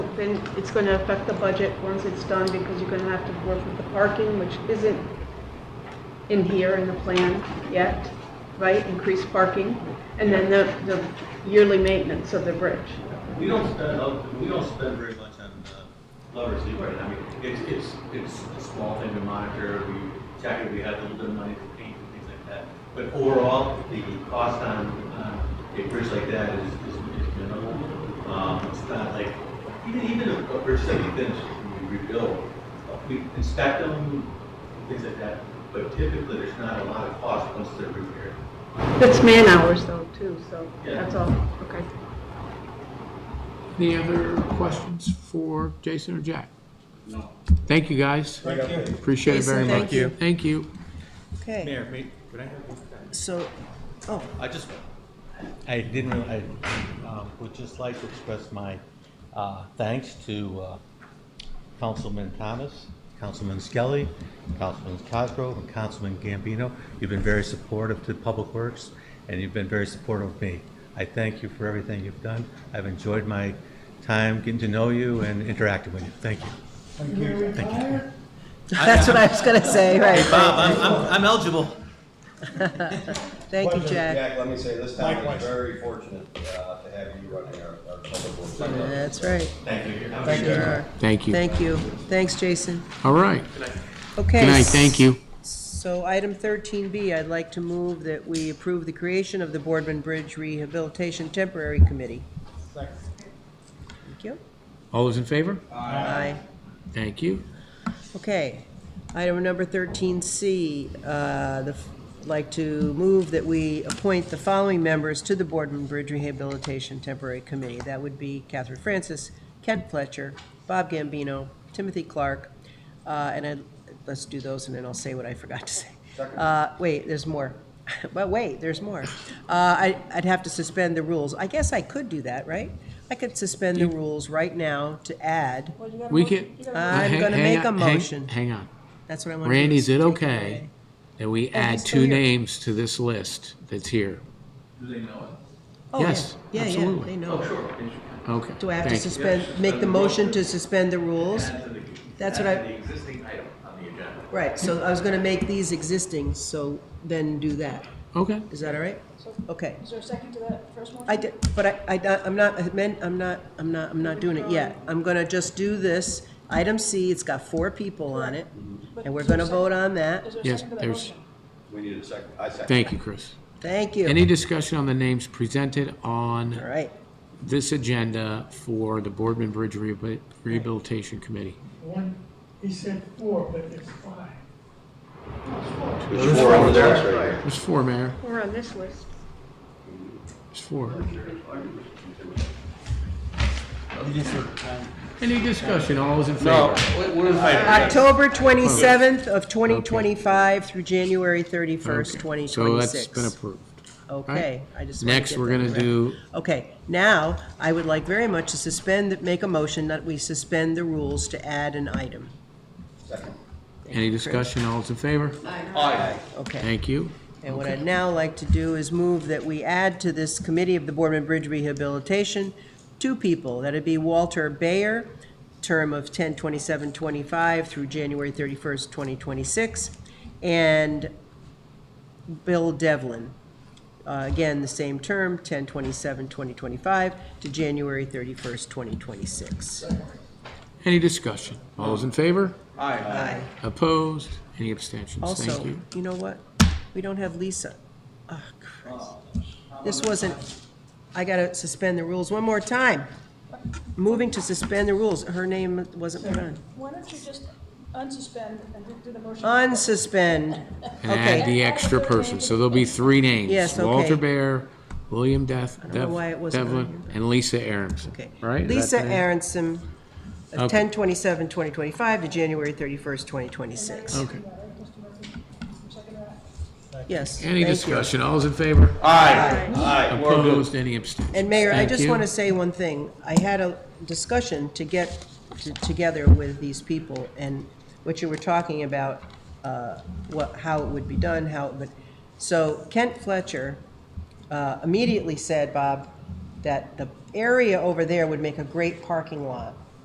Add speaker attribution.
Speaker 1: then it's going to affect the budget once it's done because you're going to have to work with the parking, which isn't in here in the plan yet, right? Increased parking, and then the, the yearly maintenance of the bridge.
Speaker 2: We don't spend, uh, we don't spend very much on uh, lovers either. I mean, it's, it's, it's a small thing to monitor. We check it, we have a little bit of money for paint and things like that. But overall, the cost on, uh, a bridge like that is, is is minimal. Um, it's not like, even, even a a bridge that we finish, we rebuild, uh, we inspect them, things like that. But typically, there's not a lot of cost once they're repaired.
Speaker 1: That's man hours though, too, so
Speaker 2: Yeah.
Speaker 1: that's all, okay.
Speaker 3: Any other questions for Jason or Jack? No. Thank you, guys. Thank you. Appreciate it very
Speaker 4: Jason,
Speaker 3: much.
Speaker 4: thank you.
Speaker 3: Thank you.
Speaker 4: Okay,
Speaker 5: Mayor, may, could I have?
Speaker 4: so, oh,
Speaker 5: I just, I didn't, really- I um, would just like to express my uh, thanks to uh, Councilman Thomas, Councilman Skelly, Councilman Cosgrove, and Councilman Gambino. You've been very supportive to Public Works, and you've been very supportive of me. I thank you for everything you've done. I've enjoyed my time getting to know you and interacting with you. Thank you.
Speaker 4: that's what I was gonna say, right, right.
Speaker 5: Bob, I'm- I'm, I'm eligible.
Speaker 4: Thank you,
Speaker 6: Pleasure,
Speaker 4: Jack.
Speaker 6: Jack, let me say, this town is very fortunate uh, to have you running our, our public works. department.
Speaker 4: That's right.
Speaker 2: Thank you.
Speaker 4: Sure are.
Speaker 3: Thank you.
Speaker 4: Thank you. Thanks, Jason.
Speaker 3: All right.
Speaker 4: Okay.
Speaker 3: Good night. Thank you.
Speaker 4: So item thirteen B, I'd like to move that we approve the creation of the Boardman Bridge Rehabilitation Temporary Committee. Thank you.
Speaker 3: All those in favor?
Speaker 4: Aye.
Speaker 3: Thank you.
Speaker 4: Okay. Item number 13C, uh, the f- like to move that we appoint the following members to the Boardman Bridge Rehabilitation Temporary Committee. That would be Catherine Francis, Kent Fletcher, Bob Gambino, Timothy Clark, uh, and I, let's do those, and then I'll say what I forgot to say. Uh, Wait, there's more. But wait, there's more. Uh, I- I'd have to suspend the rules. I guess I could do that, right? I could suspend the rules right now to add,
Speaker 3: We can.
Speaker 4: I'm
Speaker 3: hang-
Speaker 4: gonna
Speaker 3: hang
Speaker 4: make a
Speaker 3: on- hang-
Speaker 4: motion.
Speaker 3: Hang on.
Speaker 4: that's what I want to do.
Speaker 3: Randy, is it
Speaker 4: take
Speaker 3: okay that we add
Speaker 4: he's still
Speaker 3: two
Speaker 4: here.
Speaker 3: names to this list that's here?
Speaker 2: Do they know it?
Speaker 4: Oh, yeah.
Speaker 3: Yes,
Speaker 4: Yeah, yeah,
Speaker 3: absolutely.
Speaker 4: they know.
Speaker 3: Okay.
Speaker 4: Do I have to
Speaker 3: thank you.
Speaker 4: suspend, make the motion to suspend the rules? That's what I-
Speaker 2: The existing item on the agenda.
Speaker 4: Right, so I was gonna make these existing, so then do that.
Speaker 3: Okay.
Speaker 4: Is that all right? Okay.
Speaker 7: Is there a second to that first motion?
Speaker 4: I did, but I, I, don't- I'm not, I meant, I'm not, I'm not, I'm not doing it yet. I'm gonna just do this. Item C, it's got four people on it, and we're gonna vote on that.
Speaker 7: Is there a
Speaker 3: Yes,
Speaker 7: second to that
Speaker 3: there's,
Speaker 7: motion?
Speaker 6: We need a second, I second.
Speaker 3: thank you, Chris.
Speaker 4: Thank you.
Speaker 3: Any discussion on the names presented
Speaker 4: All
Speaker 3: on
Speaker 4: right.
Speaker 3: this agenda for the Boardman Bridge Rehabil- Rehabilitation Committee?
Speaker 8: One, he said four, but it's five.
Speaker 6: There's four over there, that's right.
Speaker 3: There's four, Mayor.
Speaker 1: We're on this list.
Speaker 3: There's four. Any discussion? All those in favor?
Speaker 4: October twenty-seventh of twenty twenty-five through January thirty-first,
Speaker 3: Okay,
Speaker 4: twenty
Speaker 3: So that's
Speaker 4: twenty-six.
Speaker 3: been approved.
Speaker 4: Okay, I just. wanna
Speaker 3: Next,
Speaker 4: get
Speaker 3: we're
Speaker 4: that
Speaker 3: gonna
Speaker 4: correct.
Speaker 3: do,
Speaker 4: Okay, now, I would like very much to suspend, make a motion that we suspend the rules to add an item.
Speaker 6: Second.
Speaker 3: any discussion? All those in favor?
Speaker 4: Okay,
Speaker 3: Thank you.
Speaker 4: and what I'd now like to do is move that we add to this committee of the Boardman Bridge Rehabilitation, two people, that'd be Walter Bayer, term of ten twenty-seven twenty-five through January thirty-first, twenty twenty-six, and Bill Devlin, uh, again, the same term, ten twenty-seven twenty twenty-five to January thirty-first, twenty twenty-six.
Speaker 3: Any discussion? All those in favor?
Speaker 4: Aye.
Speaker 3: Opposed? Any abstentions? Thank
Speaker 4: Also,
Speaker 3: you.
Speaker 4: you know what? We don't have Lisa. Ah, Christ. This wasn't, I gotta suspend the rules one more time. Moving to suspend the rules. Her name wasn't put on.
Speaker 7: Why don't you just unsuspend and do- do the motion?
Speaker 4: Unsuspend.
Speaker 3: And add
Speaker 4: Okay.
Speaker 3: the extra person, so there'll be three names.
Speaker 4: Yes, okay.
Speaker 3: Walter Bear, William Def,
Speaker 4: know why it
Speaker 3: Def-
Speaker 4: wasn't on
Speaker 3: Devlin, and Lisa Aronson,
Speaker 4: Okay.
Speaker 3: right? Is
Speaker 4: Lisa
Speaker 3: that the name?
Speaker 4: Aronson, uh,
Speaker 3: Okay.
Speaker 4: 10/27/2025 to January thirty-first, twenty twenty-six.
Speaker 3: Okay.
Speaker 4: Yes, thank
Speaker 3: Any
Speaker 4: you.
Speaker 3: discussion? All those in favor? Opposed? Any abstentions?
Speaker 4: And Mayor, I
Speaker 3: Thank
Speaker 4: just
Speaker 3: you.
Speaker 4: want to say one thing. I had a discussion to get t- together with these people and what you were talking about, uh, what, how it would be done, how, it would. so Kent Fletcher uh, immediately said, Bob, that the area over there would make a great parking lot